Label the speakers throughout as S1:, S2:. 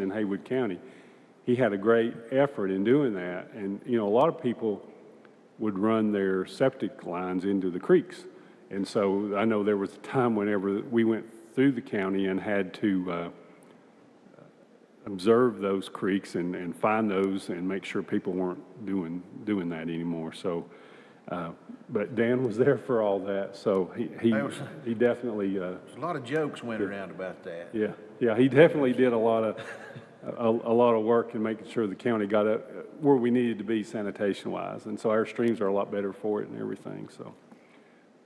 S1: in Haywood County. He had a great effort in doing that, and, you know, a lot of people would run their septic lines into the creeks. And so I know there was a time whenever we went through the county and had to uh, observe those creeks and, and find those and make sure people weren't doing, doing that anymore, so. uh, But Dan was there for all that, so he, he
S2: That was-
S1: he definitely, uh,
S2: There's A lot of jokes went around about that.
S1: yeah, yeah, he definitely did a lot of, a, a lot of work in making sure the county got up uh, where we needed to be sanitation wise. And so our streams are a lot better for it and everything, so.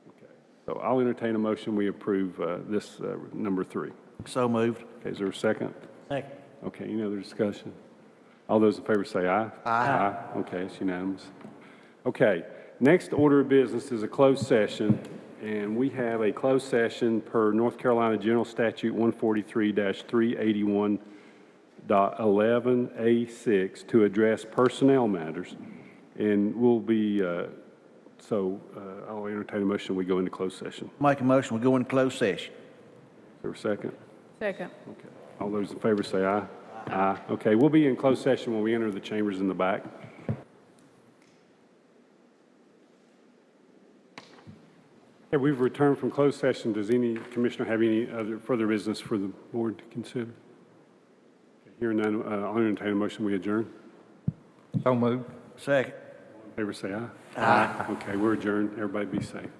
S1: Okay. So I'll entertain a motion, we approve, uh, this, uh, number three.
S2: So moved.
S1: Okay, is there a second?
S3: Second.
S1: Okay, any other discussion? All those in favor say aye. Aye. Okay, it's unanimous. Okay, next order of business is a closed session, and we have a closed session per North Carolina General Statute 143-381 dot eleven A six to address personnel matters. And we'll be, uh, so uh, I'll entertain a motion, we go into closed session.
S2: Make a motion, we go into closed session.
S1: Is there a second?
S4: Second.
S1: Okay. All those in favor say aye. Aye. Okay, we'll be in closed session when we enter the chambers in the back. Okay, we've returned from closed session. Does any commissioner have any other further business for the board to consider? Hearing none, uh, I'll entertain a motion, we adjourn.
S2: So moved. Second.
S1: Favor say aye. Aye. Okay, we're adjourned. Everybody be safe.